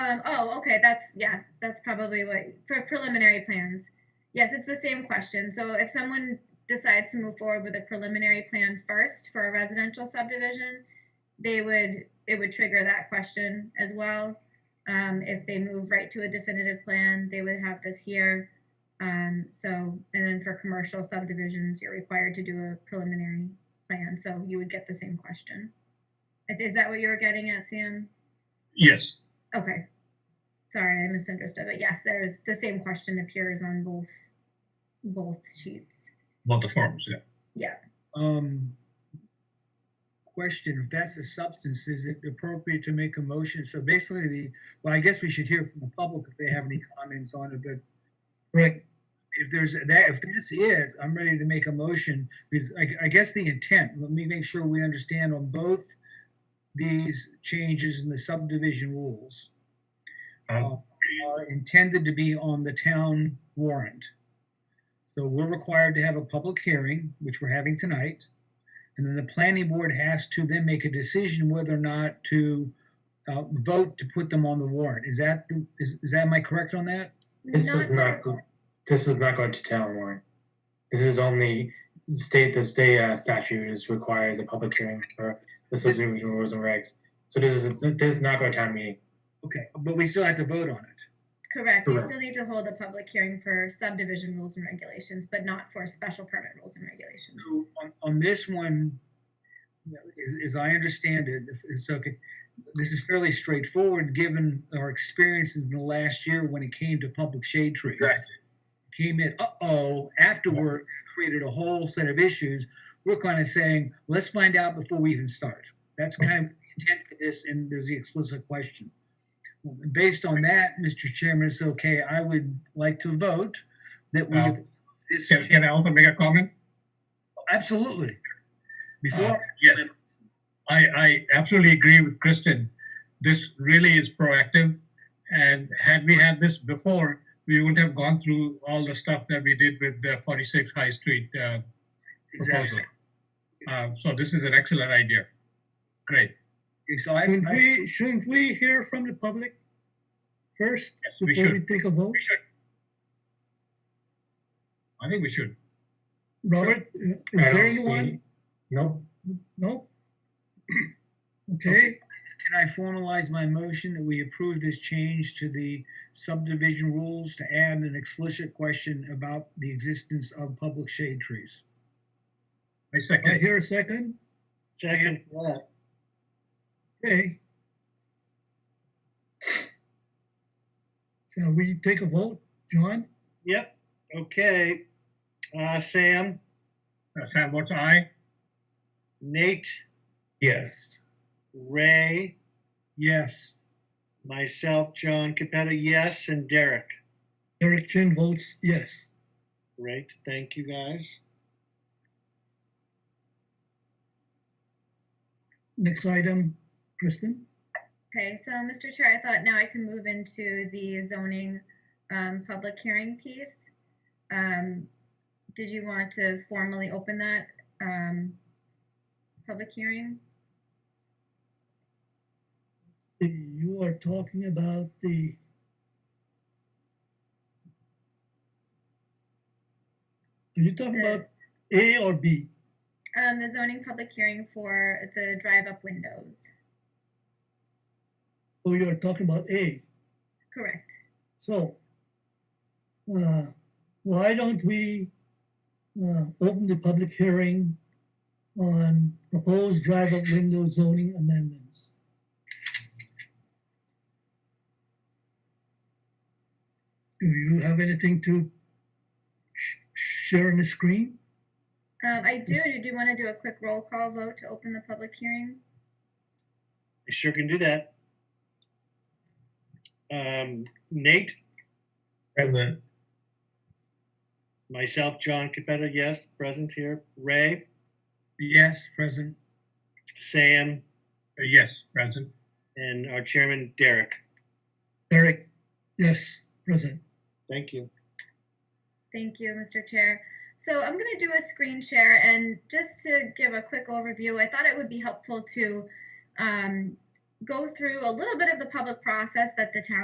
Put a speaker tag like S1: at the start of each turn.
S1: Um, oh, okay, that's, yeah, that's probably what, for preliminary plans. Yes, it's the same question. So if someone decides to move forward with a preliminary plan first for a residential subdivision, they would, it would trigger that question as well. Um, if they move right to a definitive plan, they would have this here. Um, so, and then for commercial subdivisions, you're required to do a preliminary plan, so you would get the same question. Is that what you were getting at, Sam?
S2: Yes,
S1: Okay. Sorry, I misunderstood, but yes, there's, the same question appears on both, both sheets.
S2: about the farms, yeah.
S3: Um, question, if that's a substance, is it appropriate to make a motion? So basically the, well, I guess we should hear from the public if they have any comments on it, but
S4: Right,
S3: if there's that, if that's it, I'm ready to make a motion. Because I, I guess the intent, let me make sure we understand on both these changes in the subdivision rules
S2: Uh-huh.
S3: uh, are intended to be on the town warrant. So we're required to have a public hearing, which we're having tonight. And then the planning board has to then make a decision whether or not to uh, vote to put them on the warrant. Is that, the- is, is that, am I correct on that?
S4: this is not, go- this is not going to town warrant. This is only state, the state uh, statute is requires a public hearing for the subdivision rules and regs. So this is, this is not going to town meeting.
S3: Okay, but we still have to vote on it.
S1: Correct, you
S4: Correct.
S1: still need to hold a public hearing for subdivision rules and regulations, but not for special permit rules and regulations.
S3: So on, on this one, you know, as, as I understand it, if it's okay, this is fairly straightforward, given our experiences in the last year when it came to public shade trees.
S2: Correct.
S3: Came in, uh-oh, afterward, created a whole set of issues. We're kind of saying, let's find out before we even start. That's kind of the intent for this, and there's the explicit question. Based on that, Mr. Chairman, it's okay, I would like to vote that we.
S4: Well,
S3: this
S2: Can, can I also make a comment?
S3: Absolutely. Before,
S2: Yes. I, I absolutely agree with Kristen. This really is proactive. And had we had this before, we wouldn't have gone through all the stuff that we did with the 46 High Street uh, proposal.
S3: exactly.
S2: Uh, so this is an excellent idea. Great.
S3: So I,
S5: Shouldn't
S3: I,
S5: we, shouldn't we hear from the public first
S2: Yes, we
S5: before we
S2: should.
S5: take a vote?
S2: We should. I think we should.
S5: Robert, uh, is
S4: I don't
S5: there
S4: see-
S5: anyone?
S4: Nope,
S5: No? Okay,
S3: can I formalize my motion that we approve this change to the subdivision rules to add an explicit question about the existence of public shade trees?
S2: I
S5: I
S2: second.
S5: hear a second.
S6: Second, that.
S5: Okay. Shall we take a vote, John?
S6: Yep, okay. Uh, Sam,
S2: Uh, Sam votes aye.
S6: Nate,
S4: yes.
S6: Ray,
S3: Yes.
S6: myself, John Capetta, yes, and Derek.
S5: Eric Chin votes yes.
S6: Great, thank you guys.
S5: Next item, Kristen?
S1: Okay, so Mr. Chair, I thought now I can move into the zoning um, public hearing piece. Um, Did you want to formally open that um, public hearing?
S5: You are talking about the Are you talking
S1: The-
S5: about A or B?
S1: Um, The zoning public hearing for the drive-up windows,
S5: Oh, you are talking about A.
S1: correct?
S5: So, uh, why don't we uh, open the public hearing on proposed drive-up window zoning amendments? Do you have anything to sh- share on the screen?
S1: Um, I do,
S5: Yes.
S1: did you want to do a quick roll call vote to open the public hearing?
S6: I sure can do that. Um, Nate,
S4: Present,
S6: myself, John Capetta, yes, present here. Ray,
S3: Yes, present.
S6: Sam,
S2: Uh, yes, present.
S6: and our chairman, Derek.
S5: Eric? Yes, present.
S6: Thank you.
S1: Thank you, Mr. Chair. So I'm going to do a screen share and just to give a quick overview, I thought it would be helpful to um, go through a little bit of the public process that the town